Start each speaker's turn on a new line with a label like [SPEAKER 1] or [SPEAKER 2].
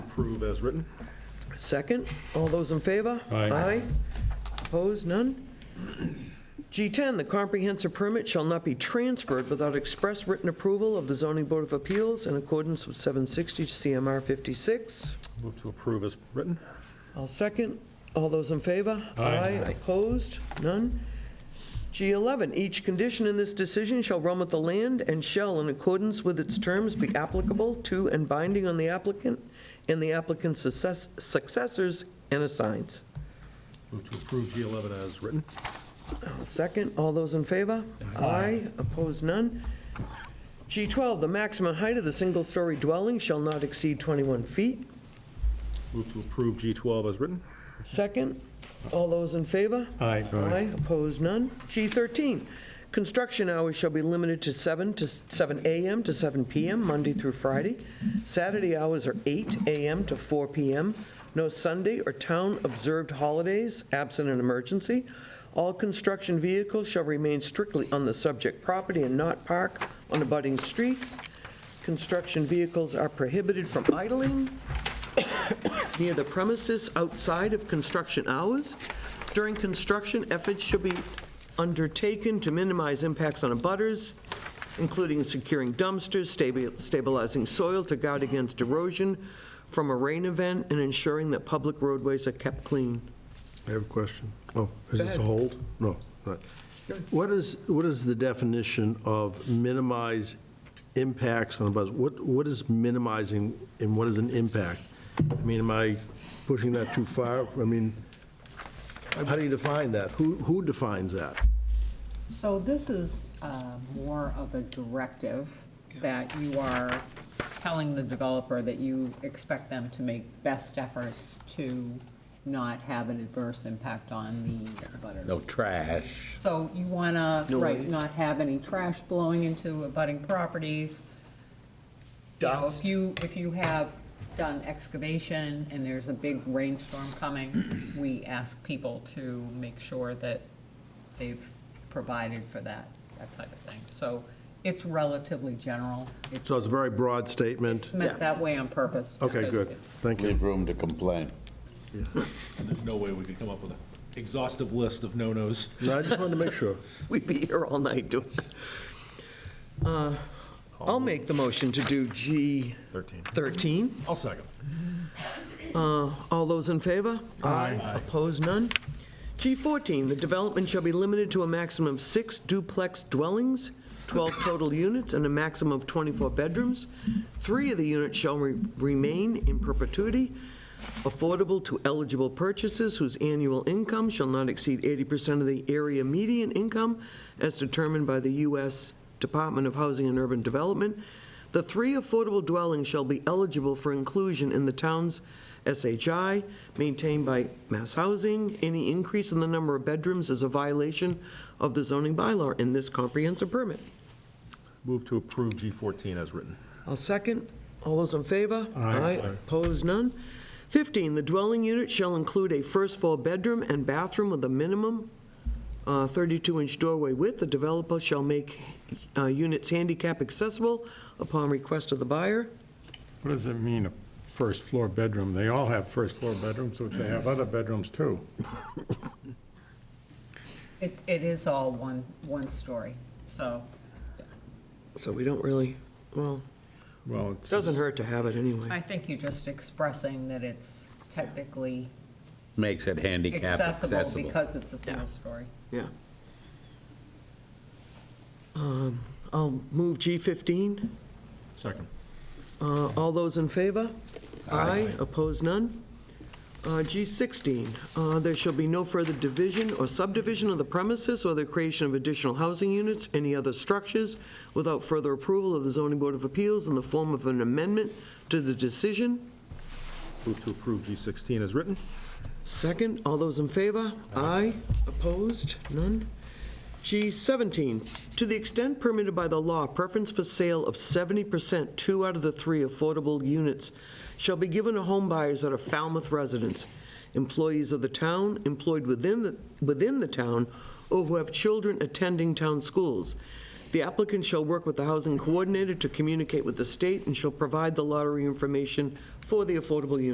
[SPEAKER 1] approve as written.
[SPEAKER 2] Second, all those in favor?
[SPEAKER 3] Aye.
[SPEAKER 2] Opposed, none? G10, the comprehensive permit shall not be transferred without express written approval of the zoning board of appeals in accordance with 760 CMR 56.
[SPEAKER 1] Move to approve as written.
[SPEAKER 2] I'll second. All those in favor?
[SPEAKER 3] Aye.
[SPEAKER 2] Opposed? None? G11, each condition in this decision shall run with the land and shall, in accordance with its terms, be applicable to and binding on the applicant and the applicant's success- successors and assigns.
[SPEAKER 1] Move to approve G11 as written.
[SPEAKER 2] I'll Second, all those in favor? Aye. Opposed? None? G12, the maximum height of the single-story dwelling shall not exceed 21 feet.
[SPEAKER 1] Move to approve G12 as written.
[SPEAKER 2] Second, all those in favor?
[SPEAKER 3] Aye.
[SPEAKER 2] Aye, opposed, none. G13, construction hours shall be limited to 7 to 7 a.m. to 7 p.m., Monday through Friday. Saturday hours are 8 a.m. to 4 p.m. No Sunday or town-observed holidays, absent an emergency. All construction vehicles shall remain strictly on the subject property and not park on abutting streets. Construction vehicles are prohibited from idling near the premises outside of construction hours. During construction, efforts should be undertaken to minimize impacts on abutters, including securing dumpsters, stabi- stabilizing soil to guard against erosion from a rain event, and ensuring that public roadways are kept clean.
[SPEAKER 4] I have a question. Oh, is
[SPEAKER 2] Go
[SPEAKER 4] this
[SPEAKER 2] ahead.
[SPEAKER 4] a hold? No, not. What is, what is the definition of minimize impacts on the buzz? What, what is minimizing and what is an impact? I mean, am I pushing that too far? I mean, how do you define that? Who, who defines that?
[SPEAKER 5] So this is uh, more of a directive that you are telling the developer that you expect them to make best efforts to not have an adverse impact on the butter.
[SPEAKER 6] No trash.
[SPEAKER 5] So you want to, right,
[SPEAKER 2] Noise.
[SPEAKER 5] not have any trash blowing into abutting properties. You know,
[SPEAKER 2] Dust.
[SPEAKER 5] If you, if you have done excavation and there's a big rainstorm coming, we ask people to make sure that they've provided for that, that type of thing. So it's relatively general. It's
[SPEAKER 4] So it's a very broad statement.
[SPEAKER 5] meant that way on purpose.
[SPEAKER 4] Okay,
[SPEAKER 5] because
[SPEAKER 4] good.
[SPEAKER 5] it's-
[SPEAKER 4] Thank you.
[SPEAKER 6] Leave room to complain.
[SPEAKER 1] There's no way we can come up with an exhaustive list of no-nos.
[SPEAKER 4] No, I just wanted to make sure.
[SPEAKER 2] We'd be here all night doing this. Uh, I'll make the motion to do
[SPEAKER 1] Thirteen.
[SPEAKER 2] G13.
[SPEAKER 1] I'll second.
[SPEAKER 2] All those in favor? Aye. Opposed, none? G14, the development shall be limited to a maximum of six duplex dwellings, 12 total units, and a maximum of 24 bedrooms. Three of the units shall re- remain in perpetuity, affordable to eligible purchasers whose annual income shall not exceed 80% of the area median income as determined by the U.S. Department of Housing and Urban Development. The three affordable dwellings shall be eligible for inclusion in the town's SHI maintained by Mass Housing. Any increase in the number of bedrooms is a violation of the zoning bylaw in this comprehensive permit.
[SPEAKER 1] Move to approve G14 as written.
[SPEAKER 2] I'll second. All those in favor?
[SPEAKER 3] Aye.
[SPEAKER 2] Opposed, none? 15, the dwelling unit shall include a first floor bedroom and bathroom with a minimum 32-inch doorway width. The developer shall make uh, units handicap accessible upon request of the buyer.
[SPEAKER 3] What does it mean, a first floor bedroom? They all have first floor bedrooms, but they have other bedrooms too.
[SPEAKER 5] It, it is all one, one story, so.
[SPEAKER 2] So we don't really, well,
[SPEAKER 3] Well, it's.
[SPEAKER 2] doesn't hurt to have it
[SPEAKER 5] I
[SPEAKER 2] anyway.
[SPEAKER 5] think you're just expressing that it's technically
[SPEAKER 6] Makes it handicap
[SPEAKER 5] accessible
[SPEAKER 6] accessible.
[SPEAKER 5] because it's a single story.
[SPEAKER 2] Yeah. Um, I'll move G15.
[SPEAKER 1] Second.
[SPEAKER 2] Uh, All those in favor?
[SPEAKER 6] Aye.
[SPEAKER 2] Opposed, none? Uh, G16, uh, there shall be no further division or subdivision of the premises or the creation of additional housing units, any other structures, without further approval of the zoning board of appeals in the form of an amendment to the decision.
[SPEAKER 1] Move to approve G16 as written.
[SPEAKER 2] Second, all those in favor? Aye. Opposed? None? G17, to the extent permitted by the law, preference for sale of 70%, two out of the three affordable units shall be given to home buyers that are Falmouth residents, employees of the town, employed within, the within the town, or who have children attending town schools. The applicant shall work with the housing coordinator to communicate with the state and shall provide the lottery information for the affordable unit.